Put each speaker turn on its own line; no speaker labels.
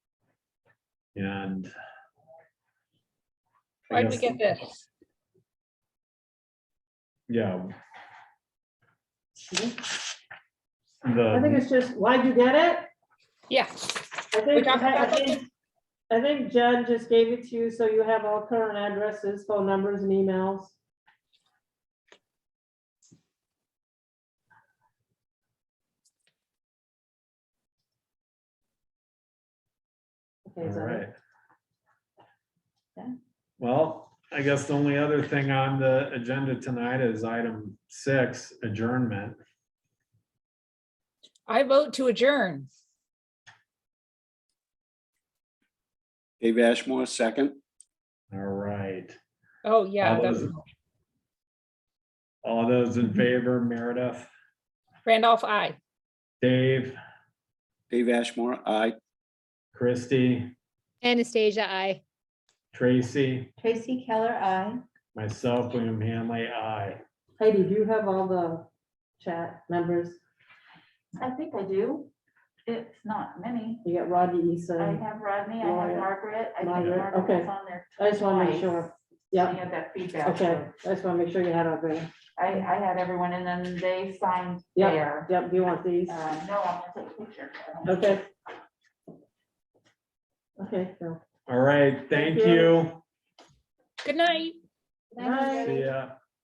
And. I
Why'd we
guess-
get this?
Yeah.
I think
The,
it's just, why'd you get it?
Yeah,
I
We
think,
talked
I I
about
think, I think Jen just gave it to you, so you have all current addresses, phone numbers and emails.
all
Okay, so
right.
Yeah.
Well, I guess the only other thing on the agenda tonight is item six adjournment.
I vote to adjourn.
Dave Ashmore, second.
All right.
Oh, yeah,
All
that-
those- All those
Mm-hmm.
in favor, Meredith,
Randolph, I.
Dave,
Dave Ashmore, aye.
Christie,
Anastasia, I.
Tracy,
Tracy Keller, I.
myself, William Hanley, I.
Heidi, do you have all the chat members?
I think I do. It's not many.
You got Rodney
I
Eason.
have Rodney, I have
Gloria.
Margaret. I think
Um, Margaret,
Margaret
okay.
was on there
I just wanna make
twice.
sure.
I
Yeah,
had that feedback.
okay. I just want to make sure you had everything.
I, I had everyone and then they signed
Yeah.
there.
Yep, do you want these?
Uh, no, I'm gonna take a picture.
Okay. Okay, so.
All right, thank
Thank you.
you.
Good night.
Bye.
See ya.